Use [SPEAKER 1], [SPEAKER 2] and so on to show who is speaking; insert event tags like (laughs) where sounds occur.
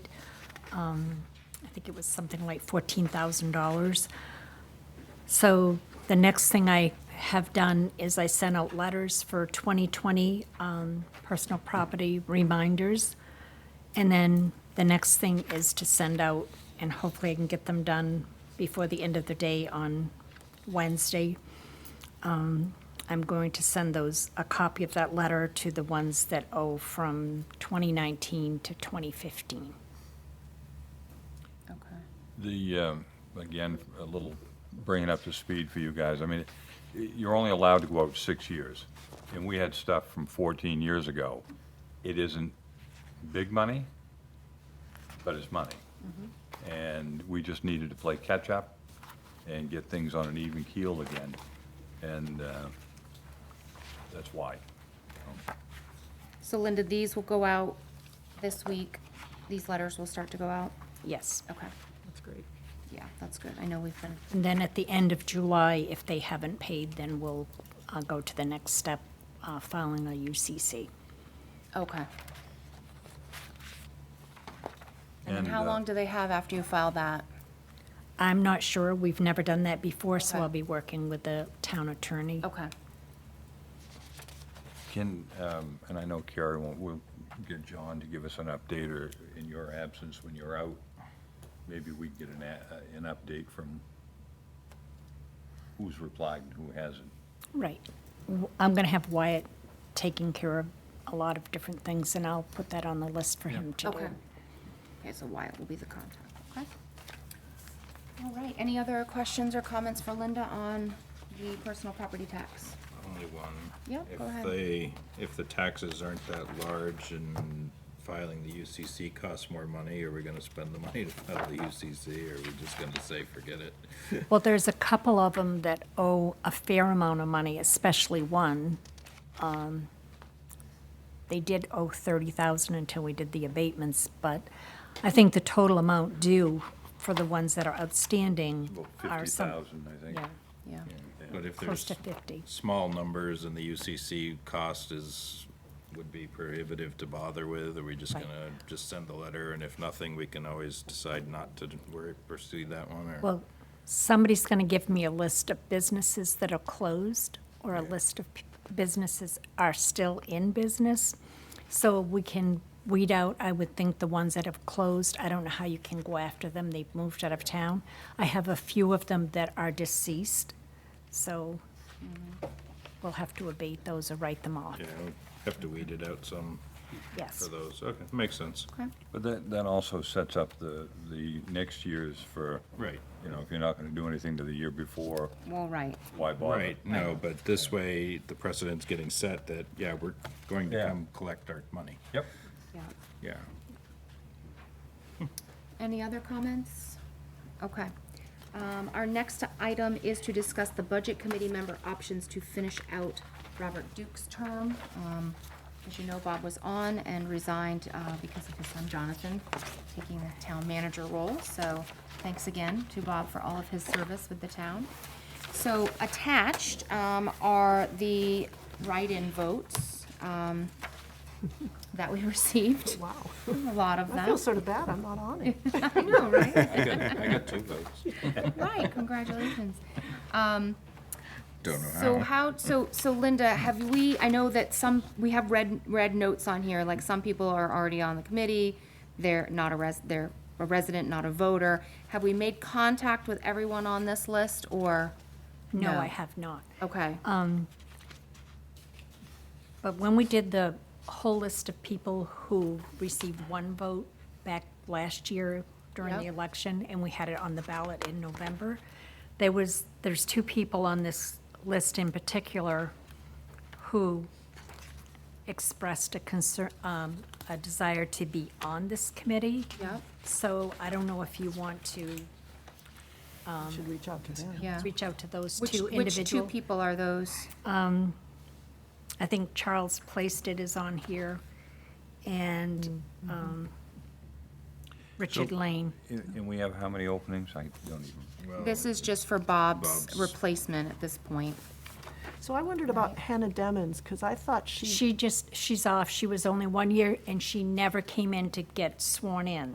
[SPEAKER 1] um, I think it was something like $14,000. So the next thing I have done is I sent out letters for 2020 um, personal property reminders. And then the next thing is to send out, and hopefully I can get them done before the end of the day on Wednesday. Um, I'm going to send those, a copy of that letter to the ones that owe from 2019 to 2015.
[SPEAKER 2] Okay.
[SPEAKER 3] The, um, again, a little bringing up to speed for you guys, I mean, you're only allowed to go out six years, and we had stuff from 14 years ago. It isn't big money, but it's money.
[SPEAKER 2] Mm-hmm.
[SPEAKER 3] And we just needed to play catch-up and get things on an even keel again, and uh, that's why.
[SPEAKER 2] So Linda, these will go out this week. These letters will start to go out.
[SPEAKER 1] Yes.
[SPEAKER 2] Okay.
[SPEAKER 4] Oh, That's great.
[SPEAKER 2] Yeah, that's good. I know we've been,
[SPEAKER 1] And then at the end of July, if they haven't paid, then we'll uh, go to the next step, uh, filing a UCC.
[SPEAKER 2] okay. And then
[SPEAKER 3] And,
[SPEAKER 2] how
[SPEAKER 3] uh,
[SPEAKER 2] long do they have after you file that?
[SPEAKER 1] I'm not sure, we've never done that before, so
[SPEAKER 2] Okay.
[SPEAKER 1] I'll be working with the town attorney.
[SPEAKER 2] Okay.
[SPEAKER 3] Can, um, and I know Carrie won't, we'll get John to give us an update, or in your absence, when you're out, maybe we get an, a- uh, an update from who's replied and who hasn't.
[SPEAKER 1] Right. W- I'm going to have Wyatt taking care of a lot of different things, and I'll put that on the list for him to do.
[SPEAKER 2] Okay. Okay, so Wyatt will be the contact, okay? All right, any other questions or comments for Linda on the personal property tax?
[SPEAKER 5] Only one.
[SPEAKER 2] Yeah, go ahead.
[SPEAKER 5] If they, if the taxes aren't that large and filing the UCC costs more money, are we gonna spend the money to file the UCC, or are we just gonna say, forget it?
[SPEAKER 1] Well, there's a couple of them that owe a fair amount of money, especially one. Um, They did owe thirty thousand until we did the abatements, but I think the total amount due for the ones that are outstanding
[SPEAKER 3] About
[SPEAKER 1] are
[SPEAKER 3] fifty
[SPEAKER 1] some.
[SPEAKER 3] thousand, I think.
[SPEAKER 1] Yeah,
[SPEAKER 2] Yeah,
[SPEAKER 5] But if
[SPEAKER 1] close
[SPEAKER 5] there's
[SPEAKER 1] to fifty.
[SPEAKER 5] small numbers and the UCC cost is, would be prohibitive to bother with, are we just
[SPEAKER 1] Right.
[SPEAKER 5] gonna just send the letter, and if nothing, we can always decide not to worry, pursue that one, or?
[SPEAKER 1] Well, somebody's gonna give me a list of businesses that are closed, or a list of p- businesses are still in business. So we can weed out, I would think, the ones that have closed. I don't know how you can go after them, they've moved out of town. I have a few of them that are deceased, so we'll have to abate those or write them off.
[SPEAKER 5] You know, have to weed it out some for
[SPEAKER 1] Yes,
[SPEAKER 5] those, okay, makes sense.
[SPEAKER 2] okay,
[SPEAKER 3] But that, that also sets up the, the next year's for,
[SPEAKER 5] Right.
[SPEAKER 3] you know, if you're not gonna do anything to the year before,
[SPEAKER 2] well, right,
[SPEAKER 3] why bother?
[SPEAKER 5] Right, no, but this way, the precedent's getting set that, yeah, we're going to
[SPEAKER 3] Yeah.
[SPEAKER 5] come collect our money.
[SPEAKER 3] Yep.
[SPEAKER 2] yeah.
[SPEAKER 5] Yeah.
[SPEAKER 2] Any other comments? Okay. Um, Our next item is to discuss the Budget Committee member options to finish out Robert Duke's term. Um, As you know, Bob was on and resigned uh, because of his son Jonathan taking the town manager role. So thanks again to Bob for all of his service with the town. So attached um, are the write-in votes um, that we (laughs) received.
[SPEAKER 4] Wow.
[SPEAKER 2] A lot of them.
[SPEAKER 4] I feel sort of bad, I'm not on it.
[SPEAKER 2] (laughs) I know, right?
[SPEAKER 5] I got, (laughs) I got two votes.
[SPEAKER 2] Right,
[SPEAKER 1] (laughs)
[SPEAKER 2] congratulations. Um,
[SPEAKER 5] Don't know
[SPEAKER 2] So
[SPEAKER 5] how.
[SPEAKER 2] how, so, so Linda, have we, I know that some, we have red, red notes on here, like some people are already on the committee, they're not a res, they're a resident, not a voter. Have we made contact with everyone on this list, or?
[SPEAKER 1] no, I have not.
[SPEAKER 2] Okay,
[SPEAKER 1] Um, But when we did the whole list of people who received one vote back last year during the
[SPEAKER 2] Yep.
[SPEAKER 1] election, and we had it on the ballot in November, there was, there's two people on this list in particular who expressed a concern, um, a desire to be on this committee.
[SPEAKER 2] Yep.
[SPEAKER 1] So I don't know if you want to
[SPEAKER 4] Should reach out to them.
[SPEAKER 2] yeah.
[SPEAKER 1] reach out to those
[SPEAKER 2] Which,
[SPEAKER 1] two
[SPEAKER 2] which two
[SPEAKER 1] individual.
[SPEAKER 2] people are those?
[SPEAKER 1] I think Charles Placed it is on here, and um, Richard
[SPEAKER 3] So-
[SPEAKER 1] Lane.
[SPEAKER 3] And and we have how many openings? I don't even,
[SPEAKER 5] Well,
[SPEAKER 2] This is just for Bob's
[SPEAKER 5] Bob's.
[SPEAKER 2] replacement at this point.
[SPEAKER 4] So I wondered about Hannah Demmons, because I thought she
[SPEAKER 1] She just, she's off, she was only one year, and she never came in to get sworn in.